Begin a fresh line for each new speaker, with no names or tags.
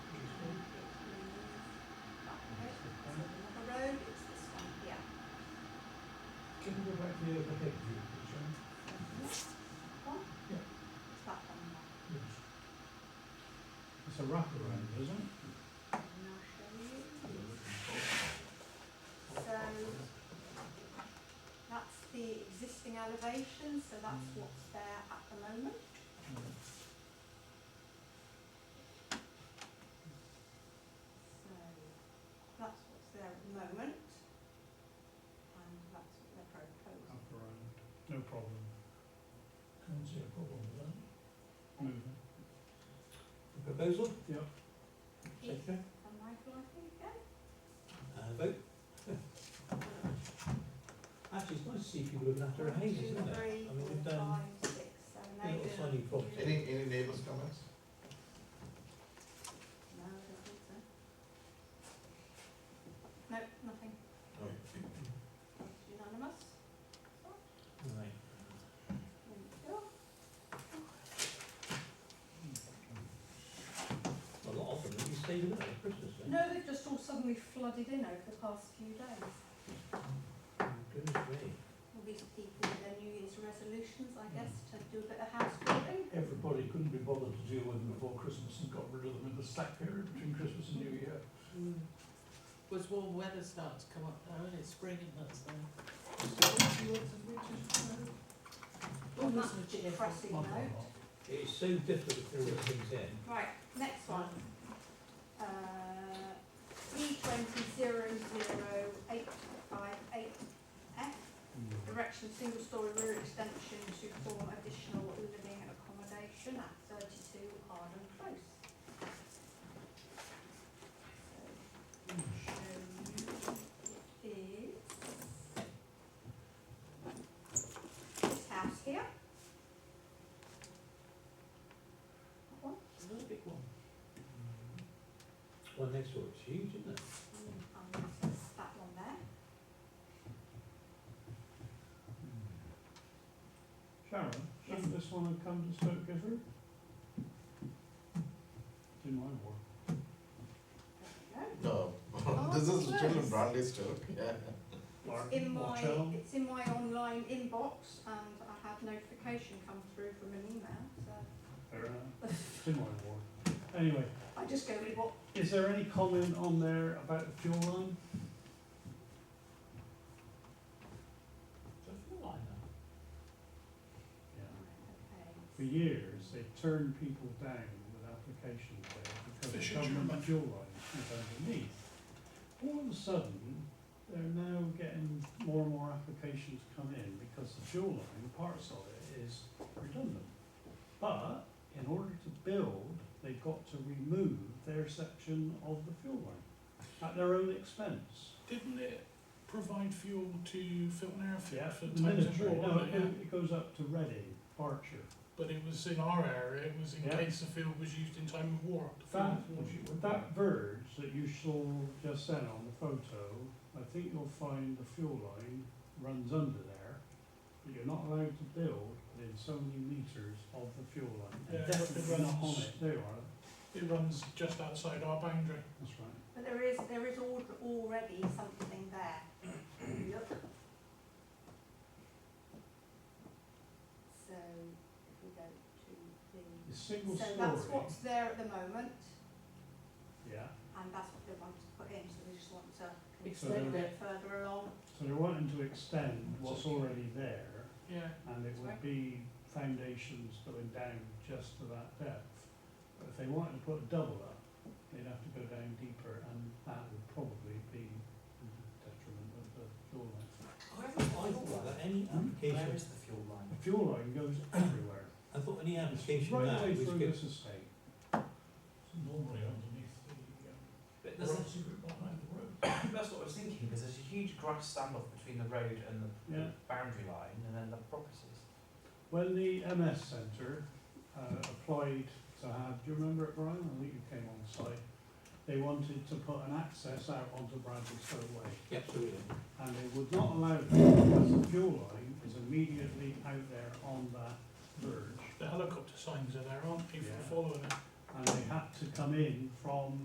Yeah, I think you, Sharon.
It's not coming up.
Yes. It's a rock around, isn't it?
I'm not sure So, that's the existing elevation, so that's what's there at the moment. So, that's what's there at the moment. And that's what they're proposing.
Rock around, no problem. Can't see a problem with that. Moving.
The proposal?
Yep.
Second?
And Michael, I think, yeah?
Uh, vote? Actually, it's nice to see people looking after a haze, isn't it? I mean, we've done a little tiny project.
Any, any neighbours comments?
No, I don't think so. No, nothing. It's Unanimous.
Right.
There we go.
A lot of them, you stayed with them at Christmas then.
No, they've just all suddenly flooded in over the past few days.
Oh, Goodness me.
All these people with their New Year's resolutions, I guess, to do a bit of house building.
Everybody couldn't be bothered to deal with them before Christmas and got rid of them in the slack period between Christmas and New Year.
Was warm weather starting to come up now, and it's spring and that's now.
On
that's
that
a cheerful
depressing
one.
note.
It is so difficult to all these things in.
Right, next one. Uh, E twenty zero zero eight five eight F. Direction single story rear extension to form additional living accommodation at thirty-two Arden Close. So, show you it is. This house here. That one.
It's not a big one.
One next door, it's huge, isn't it?
Um, so it's that one there.
Sharon, shouldn't this one have come to Stoke Gifford? Didn't mine work.
There we
No,
Oh,
this is
yes.
Richard Brandy's joke, yeah.
go. It's in my, it's in my online inbox and I had notification come through from an email, so
Fair enough. Didn't mine work. Anyway,
I just go with what,
is there any comment on there about the fuel line?
Do I feel like that?
Yeah. For
okay.
years, they turned people down with applications there because they come from the fuel line is underneath. All of a sudden, they're now getting more and more applications come in because the fuel line, parts of it is redundant. But in order to build, they've got to remove their section of the fuel line at their own expense.
Didn't it provide fuel to Filton Airfield
Yeah,
for
the
Thames
ministry,
Water?
no, it
yeah.
it goes up to Reading, Berkshire.
But it was in our area, it was in
Yeah.
case the field was used in time of war. The
That,
field was used.
that verge that you saw just then on the photo, I think you'll find the fuel line runs under there. But you're not allowed to build within so many meters of the fuel line.
Yeah,
And Definitely
it runs-
not on it, there you are,
It runs just outside our boundary.
that's right.
But there is, there is al- already something there. Look. So, if we go to the,
It's single
so
story.
that's what's there at the moment
Yeah,
and that's what they want to put in, so they just want to
Extend
bit
it.
further along.
so they're wanting to extend what's already there
Yeah,
and it would
Right.
be foundations going down just to that depth. But if they wanted to put a double up, they'd have to go down deeper and that would probably be the detriment of the fuel line.
I thought that any
Hmm?
the
application,
fuel line?
The fuel line goes everywhere,
I thought any
It's
application
right
now
the way
was
through
good.
this estate.
normally underneath the,
But
um,
there's a,
grassy bit behind the road.
that's what I was thinking, because there's a huge grass standoff between the road and the
Yeah.
boundary line and then the properties.
When the MS Centre uh, applied to have, do you remember it, Brian? I think you came on site. They wanted to put an access out onto Bradley Stowe Way.
Yeah, Absolutely.
and they would not allow it because the fuel line is immediately out there on that verge,
The helicopter signs are there, aren't people
Yeah.
following it?
and they had to come in from